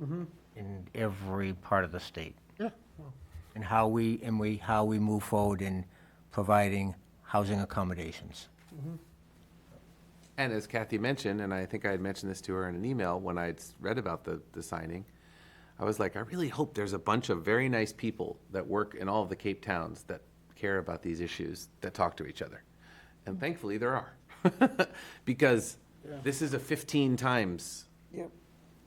Mm-hmm. in every part of the state. Yeah. And how we, and we, how we move forward in providing housing accommodations. And as Kathy mentioned, and I think I had mentioned this to her in an email when I'd s- read about the, the signing, I was like, I really hope there's a bunch of very nice people that work in all of the Cape towns that care about these issues that talk to each other. And thankfully, there are. because this is a 15 times Yep.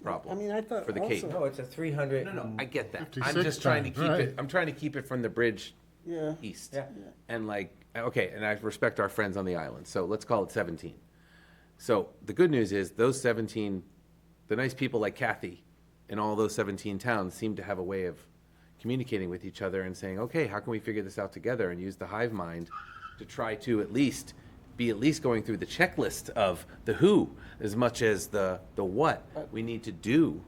problem I mean, I thought for the Cape. also- No, it's a three hundred. No, no, I get that. I'm 56 just trying to times, keep right. it. I'm trying to keep it from the bridge Yeah. east. Yeah. And like, okay, and I respect our friends on the island, so let's call it 17. So the good news is those 17, the nice people like Kathy, in all those 17 towns seem to have a way of communicating with each other and saying, okay, how can we figure this out together and use the hive mind to try to at least be at least going through the checklist of the who as much as the the what we need to do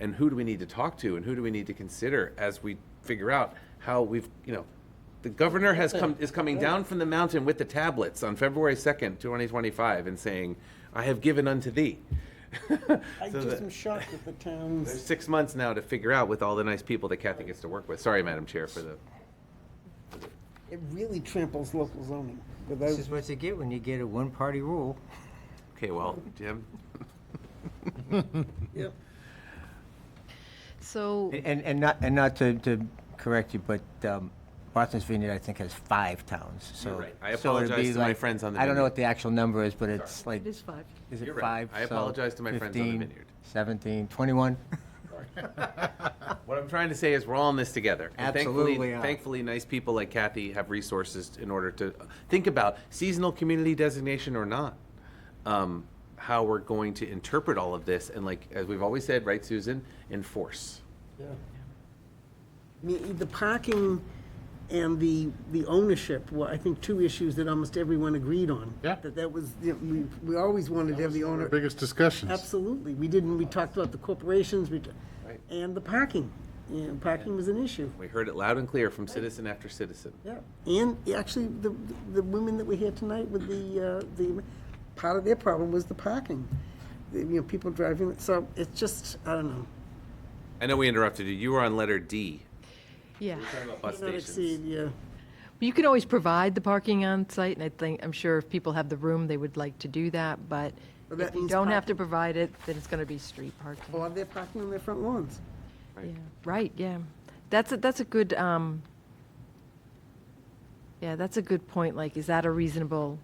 and who do we need to talk to and who do we need to consider as we figure out how we've you know the governor has come is coming down from the mountain with the tablets on February 2nd, 2025 and saying, "I have given unto thee." I So just that- am shocked that the There's towns, six months now to figure out with all the nice people that Kathy gets to work with. Sorry, Madam Chair, for the it really tramples local zoning without, This is what you get when you get a one-party rule. Okay, well, Jim, yep. So, And, and not, and not to, to correct you, but, um, Martha's Vineyard, I think, has five towns, so. You're right. I so it'd apologize be to my like- friends on the I don't know vineyard. what the actual number is, but it's like, it is five. is You're it five? right. I So apologize to my friends on the 15, vineyard. Seventeen, twenty-one? what I'm trying to say is we're all in this together. And Absolutely Thankfully, are. thankfully, nice people like Kathy have resources in order to think about seasonal community designation or not. Um, how we're going to interpret all of this and like, as we've always said, right, Susan, enforce. I mean, The parking and the, the ownership were, I think, two issues that almost everyone agreed on. Yeah. That that was, you know, we, we always wanted to have the owner. Biggest discussions. Absolutely. We didn't, we talked about the corporations, we, t- and the parking. You know, parking was an issue. We heard it loud and clear from citizen after citizen. Yeah, and actually, the, the women that were here tonight with the, uh, the, part of their problem was the parking. The, You know, people driving, so it's just, I don't know. I know we interrupted you. You were on letter D. Yeah. Talking about bus Not exceed, stations. Yeah, You can always provide the parking on site, and I think, I'm sure if people have the room, they would like to do that, but But that if you means don't have to parking. provide it, then it's going to be street parking. or they're parking on their front lawns. Yeah, Right, yeah. That's, a that's a good, um, yeah, that's a good point, like, is that a reasonable,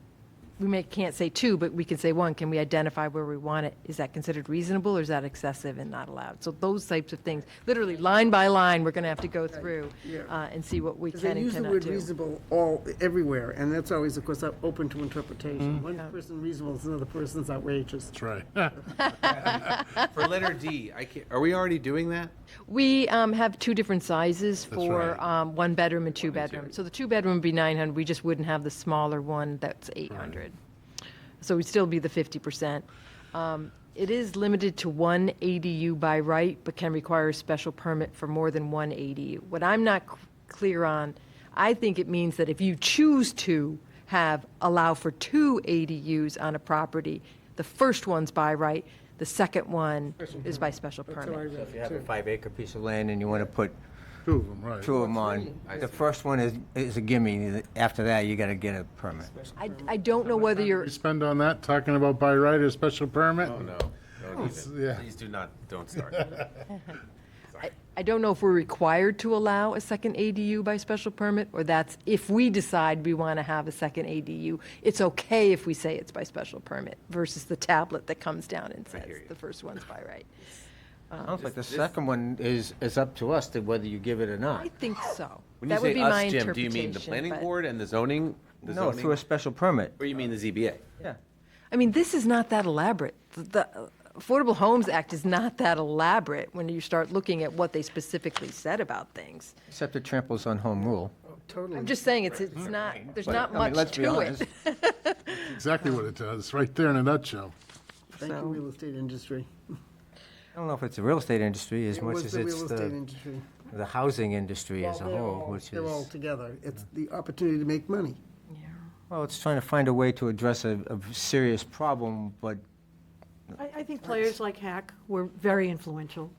we may, can't say two, but we can say one, can we identify where we want it? Is that considered reasonable, or is that excessive and not allowed? So those types of things, literally, line by line, we're going to have to go through yeah. uh, and see what we 'Cause can they and use the cannot word do. reasonable all, everywhere, and that's always, of course, uh, open to Mm-hmm. interpretation. One person reasonable is another person's outrageous. That's right. For letter D, I can't, are we already doing that? We um, have two different sizes for right. um, one bedroom and two bedroom. So the two bedroom would be 900, we just wouldn't have the smaller one that's 800. So we'd still be the 50%. Um, It is limited to one ADU by right, but can require a special permit for more than one ADU. What I'm not c- clear on, I think it means that if you choose to have, allow for two ADUs on a property, the first one's by right, the second one is by special permit. uh, If you have a five-acre piece of land and you want to put Two of them, right. two of them on, the first one is, is a gimme, after that, you gotta get a permit. I, I don't know whether you're, We spend on that, talking about by right or special permit? Oh, no. Don't even. yeah. Please do not, don't start. I don't know if we're required to allow a second ADU by special permit, or that's if we decide we want to have a second ADU, it's okay if we say it's by special permit versus the tablet that comes down and says hear you. the first one's by right. Sounds like the second one is, is up to us to whether you give it or not. I think so. When you That would say be my us, Jim, interpretation. do you mean the planning but- board and the zoning? the No, zoning- through a special permit. Or you mean the ZBA? Yeah. I mean, this is not that elaborate. The- The Affordable Homes Act is not that elaborate when you start looking at what they specifically said about things. Except it tramples on home rule. Totally. I'm just saying, it's, it's not, there's But, not I mean, much let's be to honest, it. Exactly what it does, right there in a nutshell. Thank you, real estate industry. I don't know if it's the real estate industry as It much was as the it's real estate the, industry. the housing industry as a Well, they're whole, all- which is. They're all together. It's the opportunity to make money. Well, it's trying to find a way to address a, a serious problem, but I, I think players like Hack were very influential.